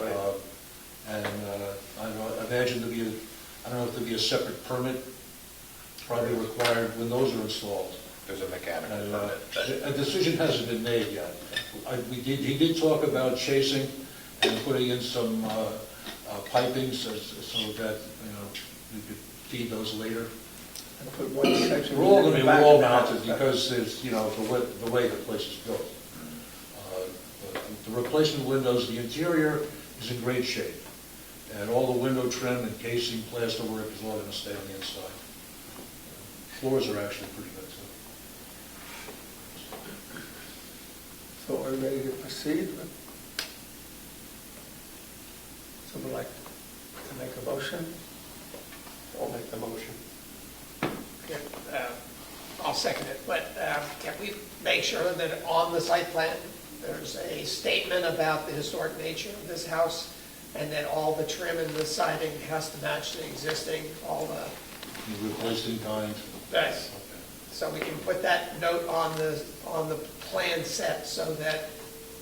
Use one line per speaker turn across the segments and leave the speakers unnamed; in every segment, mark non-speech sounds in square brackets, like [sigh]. Uh, imagine there'd be, a- I don't know if there'd be a separate permit probably required when those are installed.
There's a mechanical
And, uh,
permit.
A decision hasn't been made yet. I, we did, he did talk about chasing and putting in some, uh, uh, piping so, so that, you know, we could feed those later.
And put one section.
We're all gonna be wall
in the back of
mounted
the house.
because there's, you know, the way, the way the place is built. Uh, the- The replacement windows, the interior is in great shape. And all the window trim and casing, plasterwork is all gonna stay on the inside. Floors are actually pretty good too.
So are we ready to proceed? with- Someone like to make a motion?
I'll make the motion.
Yeah, uh, I'll second it, but uh, can we make sure that on the site plan, there's a statement about the historic nature of this house, and that all the trim and the siding has to match the existing, all the,
You replaced in kind.
Nice.
Okay.
so we can put that note on the, on the plan set, so that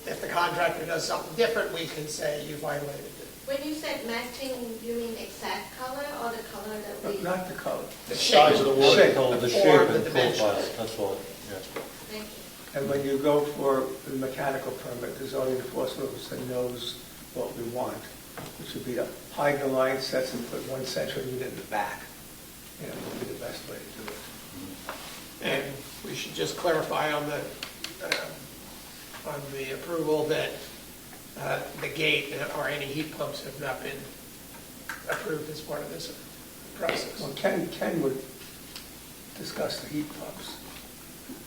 if the contractor does something different, we can say you violated it.
When you said matching, you mean exact color or the color that we?
Uh, Not the color.
The
Size of
shape.
the wood.
Shape, oh, the shape
form,
and
the
profile,
dimensions.
that's all, yeah.
Thank you.
And when you go for the mechanical permit, the zoning enforcement officer knows what we want, which would be to hide the line sets and put one section unit in the back. You know, would be the best way to do it.
And we should just clarify on the, um, on the approval that uh, the gate or any heat pumps have not been approved as part of this process.
Well, Ken, Ken would discuss the heat pumps.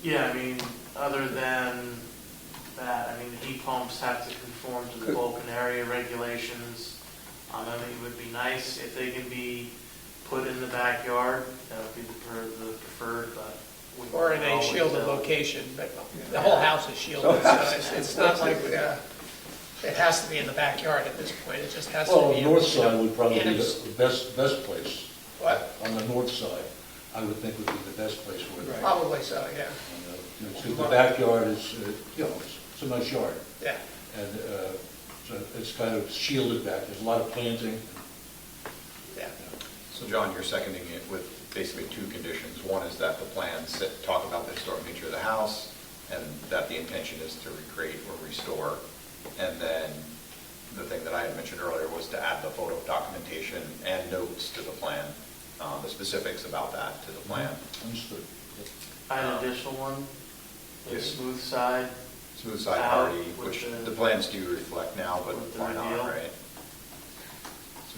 Yeah, I mean, other than that, I mean, the heat pumps have to conform to the
Good.
Vulcan area regulations. Um, I mean, it would be nice if they can be put in the backyard, that would be the per- the preferred, but. we
Or in a
always,
shielded
uh,
location, but the whole house is shielded, so it's- it's not like, uh, it has to be in the backyard at this point, it just has to be.
Well,
in-
north side would probably
in
be
a-
the best, best place.
What?
On the north side, I would think would be the best place for it.
Right.
Probably so, yeah,
Because the backyard is, uh, you know, it's- it's a nice yard,
yeah.
and uh, so it's kind of shielded back, there's a lot of planting.
Yeah.
So John, you're seconding it with basically two conditions. One is that the plans sit- talk about the historic nature of the house, and that the intention is to recreate or restore. And then the thing that I had mentioned earlier was to add the photo documentation and notes to the plan, uh, the specifics about that to the plan.
Understood.
I had an additional one, the
Yes.
smooth side,
Smooth side
Out
party,
with
which
the-
the plans do reflect now, but
with the
why not,
reveal.
right?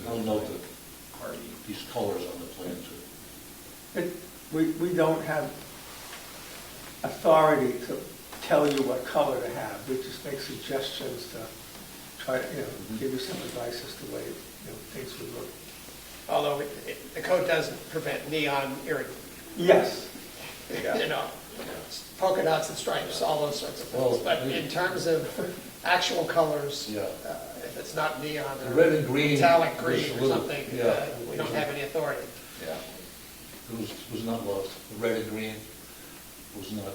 I'll note that
Party.
these colors on the plan too.
It, we, we don't have authority to tell you what color to have, we just make suggestions to try to, you know, give you some advice as to way, you know, things would look.
Although it- it- the code doesn't prevent neon irritant,
Yes,
you know, polka dots and stripes, all those sorts of
Well,
things. But in
we-
terms of actual colors,
Yeah.
uh, if it's not neon
The
or
red and green
metallic
was
green
a
or
little-
something,
yeah.
uh, we don't have any authority.
Yeah.
It was, was not loved, the red and green was not,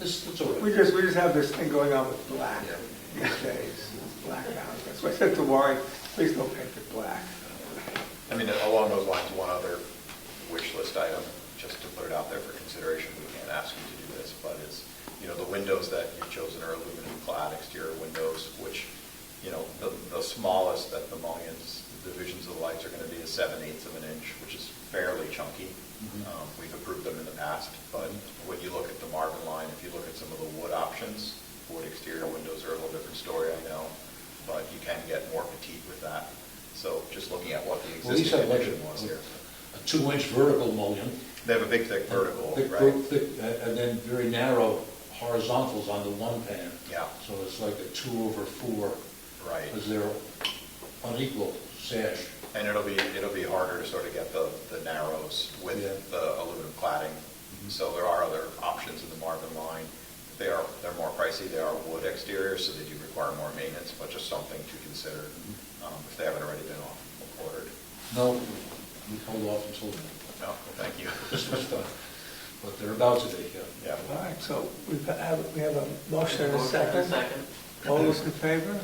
it's, it's all
we
right.
just, we just have this thing going on with black
Yeah.
these days, black mountain. That's why I said to Warren, please don't paint it black.
I mean, along those lines, one other wish list item, just to put it out there for consideration, we can't ask you to do this, but is, you know, the windows that you've chosen are aluminum clad exterior windows, which, you know, the, the smallest that the mullions, the divisions of the lights are gonna be is seven eighths of an inch, which is fairly chunky.
Mhm.
Um, We've approved them in the past, but when you look at the Marvin line, if you look at some of the wood options, wood exterior windows are a little different story, I know, but you can get more petite with that. So just looking at what the
Well, these have
existing
like
condition was
a,
here.
a two-inch vertical mullion.
They have a big thick vertical,
Thick-
right?
thick- uh, And then very narrow horizontals on the one pan.
Yeah.
So it's like a two over four,
Right.
because they're unequal sash.
And it'll be, it'll be harder to sort of get the, the narrows
Yeah.
with the aluminum cladding. So there are other options in the Marvin line. They are, they're more pricey, they are wood exterior, so they do require more maintenance, but just something to consider um, if they haven't already been off- ordered.
No, we hold off until
No, well, thank you. [laughs]
this was done, but they're about to be, yeah.
Yeah.
All right, so we have, we have a motion and a
Motion and
second.
second.
All those in favor?